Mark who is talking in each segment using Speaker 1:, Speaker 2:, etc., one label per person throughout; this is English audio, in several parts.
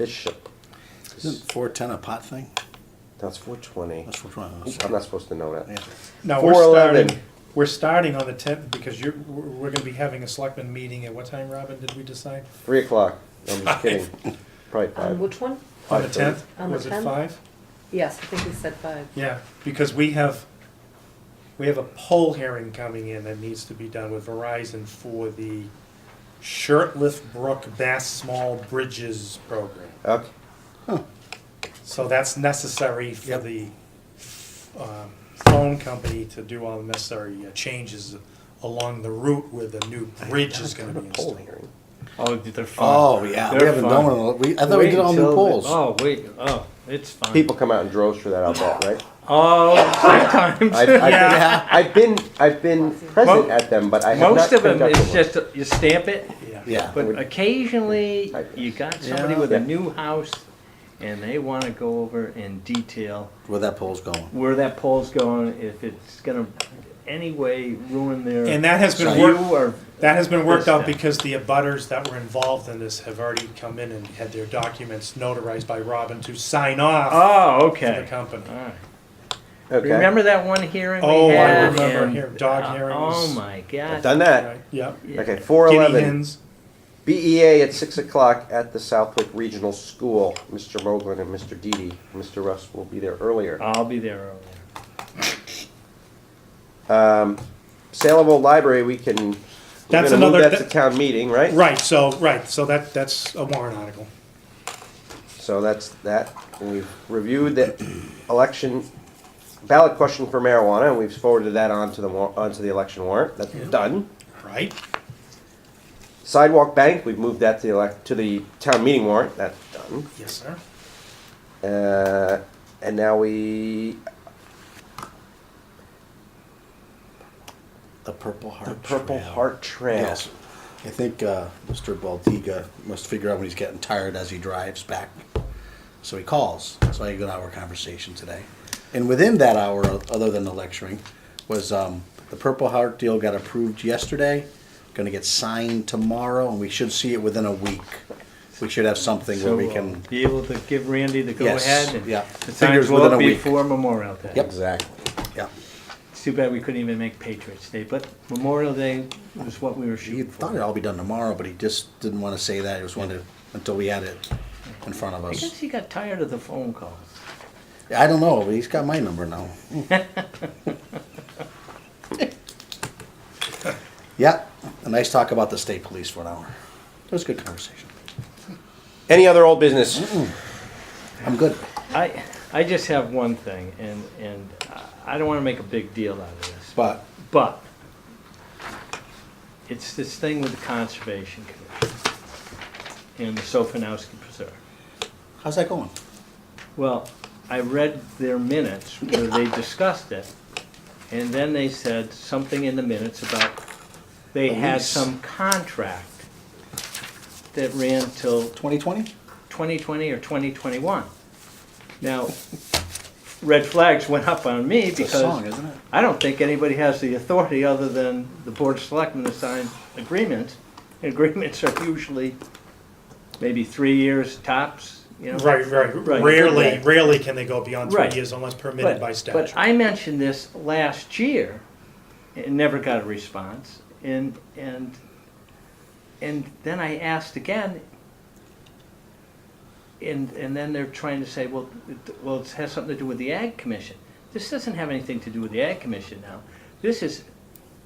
Speaker 1: Bishop.
Speaker 2: Isn't four ten a pot thing?
Speaker 1: That's four twenty.
Speaker 2: That's what I'm
Speaker 1: I'm not supposed to know
Speaker 2: Yeah.
Speaker 1: that.
Speaker 3: No, we're
Speaker 1: 411.
Speaker 3: starting, we're starting on the tenth because you're, we're we're gonna be having a selectmen meeting at what time, Robin, did we decide?
Speaker 1: Three o'clock. I'm just kidding. Probably
Speaker 4: Um,
Speaker 1: five.
Speaker 4: which one?
Speaker 3: On the
Speaker 1: Five thirty.
Speaker 3: tenth?
Speaker 4: On the
Speaker 3: Was it
Speaker 4: 10th?
Speaker 3: five?
Speaker 4: Yes, I think we said five.
Speaker 3: Yeah, because we have, we have a poll hearing coming in that needs to be done with Verizon for the Shirtlift Brook Bass Small Bridges program.
Speaker 1: Okay.
Speaker 3: So that's necessary for
Speaker 2: Yep.
Speaker 3: the um, phone company to do all the necessary uh, changes along the route where the new bridge is gonna be
Speaker 1: Poll
Speaker 3: installed.
Speaker 1: hearing.
Speaker 5: Oh, they're fun.
Speaker 2: Oh, yeah, we
Speaker 5: They're
Speaker 2: haven't
Speaker 5: fun.
Speaker 2: done one, of those. we, I thought we
Speaker 5: Wait
Speaker 2: did all new
Speaker 5: until the-
Speaker 2: polls.
Speaker 5: Oh, wait. Oh, it's fun.
Speaker 1: People come out in droves for that. I'll bet, right?
Speaker 5: Oh, sometimes.
Speaker 1: I've, I've,
Speaker 3: Yeah.
Speaker 1: been, I've been, I've been present
Speaker 5: Mo-
Speaker 1: at them, but I have
Speaker 5: Most
Speaker 1: not
Speaker 5: of them
Speaker 1: conducted
Speaker 5: is
Speaker 1: one.
Speaker 5: just you stamp it,
Speaker 2: Yeah,
Speaker 1: Would-
Speaker 5: but occasionally
Speaker 1: I-
Speaker 5: you got somebody
Speaker 2: Yeah.
Speaker 5: with a
Speaker 1: Yeah.
Speaker 5: new house and they want to go over in detail
Speaker 2: where that poll's going.
Speaker 5: where that pole's going, if it's going to any way ruin their
Speaker 3: And that has been
Speaker 5: view
Speaker 3: worked-
Speaker 5: or
Speaker 3: That has been worked out
Speaker 5: Yes, yeah.
Speaker 3: because the abutters that were involved in this have already come in and had their documents notarized by Robin to sign off
Speaker 5: Oh,
Speaker 3: to the
Speaker 5: okay.
Speaker 3: company.
Speaker 5: All right.
Speaker 1: okay.
Speaker 5: Remember that one hearing
Speaker 3: Oh, I
Speaker 5: we had?
Speaker 3: remember
Speaker 5: and-
Speaker 3: here- dog
Speaker 5: uh,
Speaker 3: hearings.
Speaker 5: Oh my god.
Speaker 1: I've done that.
Speaker 3: Right, Yep.
Speaker 5: Yeah.
Speaker 1: Okay, four
Speaker 3: Guinea
Speaker 1: eleven.
Speaker 3: hens.
Speaker 1: BEA at six o'clock at the Southwick Regional School. Mr. Moglen and Mr. Deedy. Mr. Russ will be there earlier.
Speaker 5: I'll be there earlier.
Speaker 1: Um, sale of old library, we can. we're
Speaker 3: That's
Speaker 1: gonna move
Speaker 3: another-
Speaker 1: That's a
Speaker 3: that-
Speaker 1: town meeting, right?
Speaker 3: Right, so, right, so that, that's a warrant article.
Speaker 1: So that's that. And We've reviewed the election ballot question for marijuana, and we've forwarded that on to the war, onto the election warrant. That's done.
Speaker 3: Right?
Speaker 1: Sidewalk bank, we've moved that to the elec to the town meeting warrant. That's done.
Speaker 3: Yes, sir.
Speaker 1: Uh, and now we
Speaker 2: The Purple Heart.
Speaker 1: the Purple
Speaker 2: Trail.
Speaker 1: Heart Trail.
Speaker 2: Yes. I think, uh, Mr. Baltiga must figure out when he's getting tired as he drives back. So he calls. So I had a good hour conversation today. And within that hour, other than the lecturing, was, um, the Purple Heart deal got approved yesterday. Gonna get signed tomorrow and we should see it within a week. We should have something where
Speaker 5: So uh,
Speaker 2: we
Speaker 5: we'll
Speaker 2: can.
Speaker 5: be able to give Randy the go
Speaker 2: Yes,
Speaker 5: ahead and
Speaker 2: yeah.
Speaker 5: the
Speaker 2: Figures
Speaker 5: signs will
Speaker 2: within
Speaker 5: up
Speaker 2: a week.
Speaker 5: before Memorial Day.
Speaker 2: Yep.
Speaker 1: Exactly.
Speaker 2: Yeah.
Speaker 5: It's too bad we couldn't even make Patriots Day, but Memorial Day was what we were
Speaker 2: He
Speaker 5: shooting
Speaker 2: thought
Speaker 5: for.
Speaker 2: it'd all be done tomorrow, but he just didn't want to say that. He was wanted until we had it in front of
Speaker 5: I guess
Speaker 2: us.
Speaker 5: he got tired of the phone calls.
Speaker 2: I don't know, but he's got my number now. yeah, a nice talk about the state police for an hour. It was a good conversation.
Speaker 1: Any other old business?
Speaker 2: I'm good.
Speaker 5: I, I just have one thing, and, and I- I don't want to make a big deal out of this,
Speaker 2: But
Speaker 5: But it's this thing with the Conservation Commission and the Sofinowski Preserve.
Speaker 2: how's that going?
Speaker 5: Well, I read their minutes where they discussed it, and then they said something in the minutes about they had
Speaker 2: lease.
Speaker 5: some contract that ran till
Speaker 2: 2020?
Speaker 5: 2020 or 2021. Now, red flags went up on me
Speaker 2: It's a song,
Speaker 5: because
Speaker 2: isn't it?
Speaker 5: I don't think anybody has the authority other than the Board of Selectmen to sign agreements. And Agreements are usually maybe three years tops, you know?
Speaker 3: Right, right.
Speaker 5: Right.
Speaker 3: Rarely, rarely can they go beyond three
Speaker 5: Right.
Speaker 3: years unless permitted
Speaker 5: But-
Speaker 3: by
Speaker 5: But
Speaker 3: statute.
Speaker 5: I mentioned this last year and never got a response. And, and, and then I asked again. And, and then they're trying to say, well, it- well, it has something to do with the Ag Commission. This doesn't have anything to do with the Ag Commission now. This is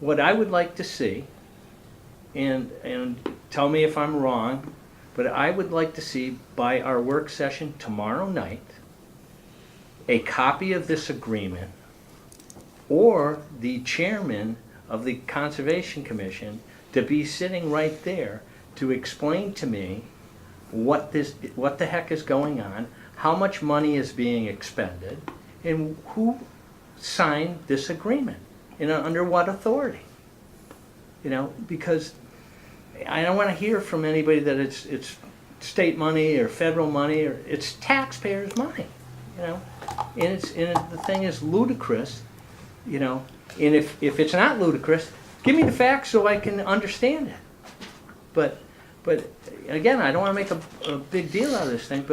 Speaker 5: what I would like to see. And, and tell me if I'm wrong, but I would like to see by our work session tomorrow night, a copy of this agreement or the chairman of the Conservation Commission to be sitting right there to explain to me what this, what the heck is going on, how much money is being expended, and who signed this agreement, and under what authority? You know, because I don't want to hear from anybody that it's, it's state money or federal money, or it's taxpayers' money, you know? And it's, and it- the thing is ludicrous, you know? And if, if it's not ludicrous, give me the facts so I can understand it. But But again, I don't want to make a, a big deal out of this thing, but